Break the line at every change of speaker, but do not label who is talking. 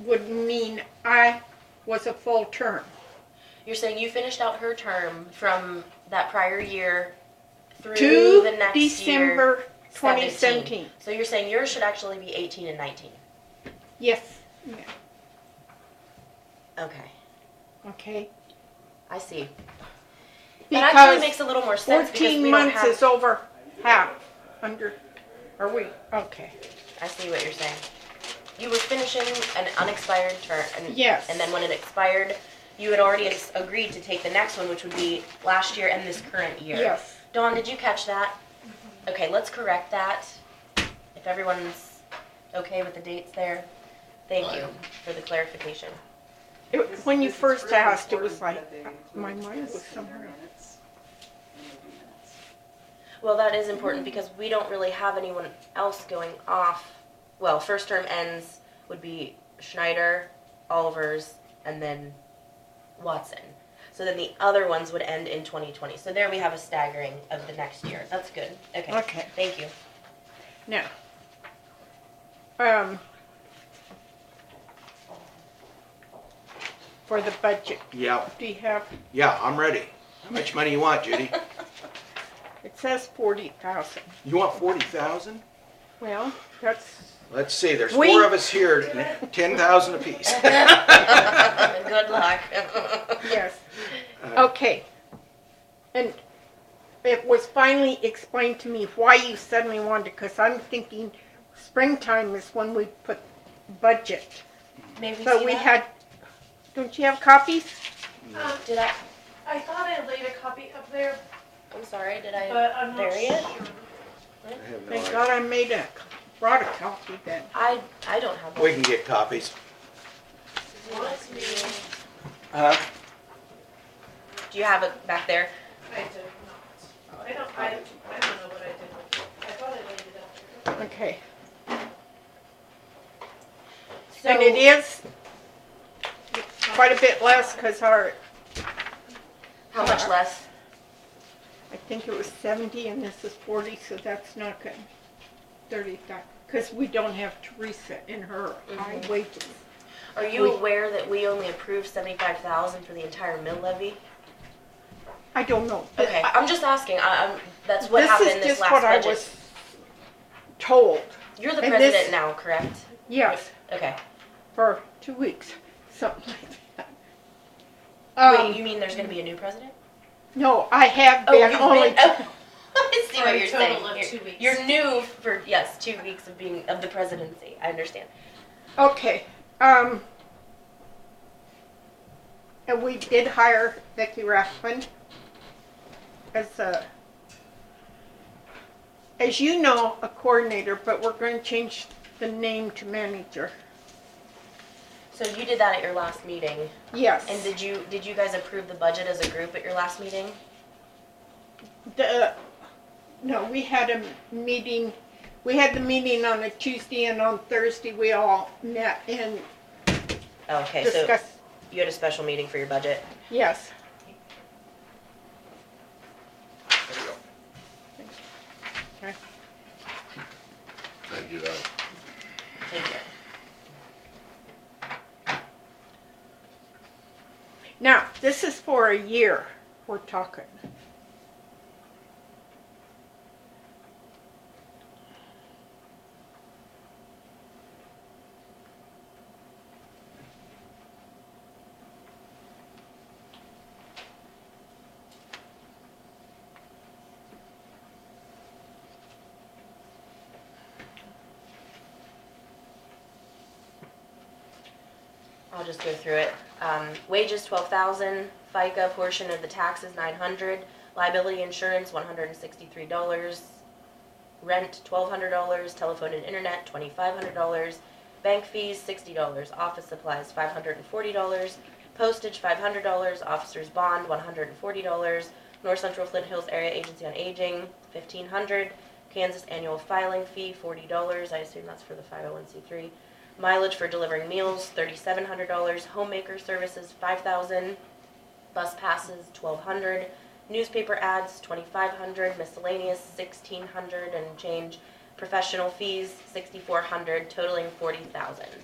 would mean I was a full term.
You're saying you finished out her term from that prior year through
To
the next year.
December twenty seventeen.
So you're saying yours should actually be 18 and 19.
Yes,
Okay,
okay.
I see. that actually
Because
makes a little more sense because we
fourteen months
don't have.
is over half, under, are we, okay.
I see what you're saying. You were finishing an unexpired term. And,
Yes.
And then when it expired, you had already ex- agreed to take the next one, which would be last year and this current year.
Yes,
Dawn, did you catch that? Okay, let's correct that. If everyone's okay with the dates there, thank you for the clarification.
It- when you
This is
first
really
asked, it was
important
like,
that they
uh,
include
my mind was
this in their
somewhere.
minutes, in their minutes.
Well, that is important
Mm-hmm.
because we don't really have anyone else going off. Well, first term ends would be Schneider, Oliver's, and then Watson. So then the other ones would end in 2020. So there we have a staggering of the next year. That's good. Okay.
Okay.
Thank you.
Now, um, for the budget,
Yeah,
do you have,
yeah, I'm ready. How much money you want, Judy?
it says forty thousand.
You want forty thousand?
Well, that's,
Let's see, there's
We-
four of us here, ten thousand apiece.
good luck.
yes,
Uh,
okay. And it was finally explained to me why you suddenly wanted, because I'm thinking springtime is when we put budget.
May we
So
see
we
that?
had, don't you have copies?
Um,
Did I?
I thought I laid a copy up there,
I'm sorry. Did I?
but I'm not
bury it?
sure.
I have no
Thank
idea.
God I made a, brought a copy then.
I I don't have one.
We can get copies.
Do you want to-
Huh?
Do you have it back there?
I did not. I don't, I, I don't know what I did. with it. I thought I laid it up there.
Okay.
So
And it is quite a bit less because our,
how much less?
I think it was seventy and this is forty, so that's not good. Thirty thousand, because we don't have Teresa in her high wages.
Are you
We-
aware that we only approved seventy-five thousand for the entire mill levy?
I don't know. but
Okay,
I-
I'm just asking. I, I'm that's what
this is
happened this
just
last
what I
budget.
was Told,
You're the
and
president
this-
now, correct?
yes,
Okay.
for two weeks, something like that.
Wait,
Um,
you mean there's going to be a new president?
no, I have
Oh,
been
you've
only,
been. Oh, I see
For
what
a
you're saying.
total of
You're-
two weeks.
You're new for yes, two weeks of being of the presidency. I understand.
okay, um. And we did hire Vicki Rathman as a, as you know, a coordinator, but we're gonna change the name to manager.
So you did that at your last meeting.
Yes.
And did you, did you guys approve the budget as a group at your last meeting?
The, no, we had a meeting, we had the meeting on a Tuesday and on Thursday, we all met and
Okay, so
discussed,
you had a special meeting for your budget.
yes.
There
Thank you,
you go.
though.
Thank you.
Now, this is for a year, we're talking.
I'll just go through it. Um, wages twelve thousand, FICA portion of the taxes nine hundred, liability insurance one hundred and sixty-three dollars, rent twelve hundred dollars, telephone and internet twenty-five hundred dollars, bank fees sixty dollars, office supplies five hundred and forty dollars, postage five hundred dollars, officer's bond one hundred and forty dollars, North Central Flint Hills Area Agency on Aging fifteen hundred, Kansas annual filing fee forty dollars, I assume that's for the five oh one C three, mileage for delivering meals, thirty-seven hundred dollars, homemaker services, five thousand, bus passes, twelve hundred, newspaper ads, twenty-five hundred, miscellaneous, sixteen hundred and change, professional fees, sixty-four hundred, totaling forty thousand.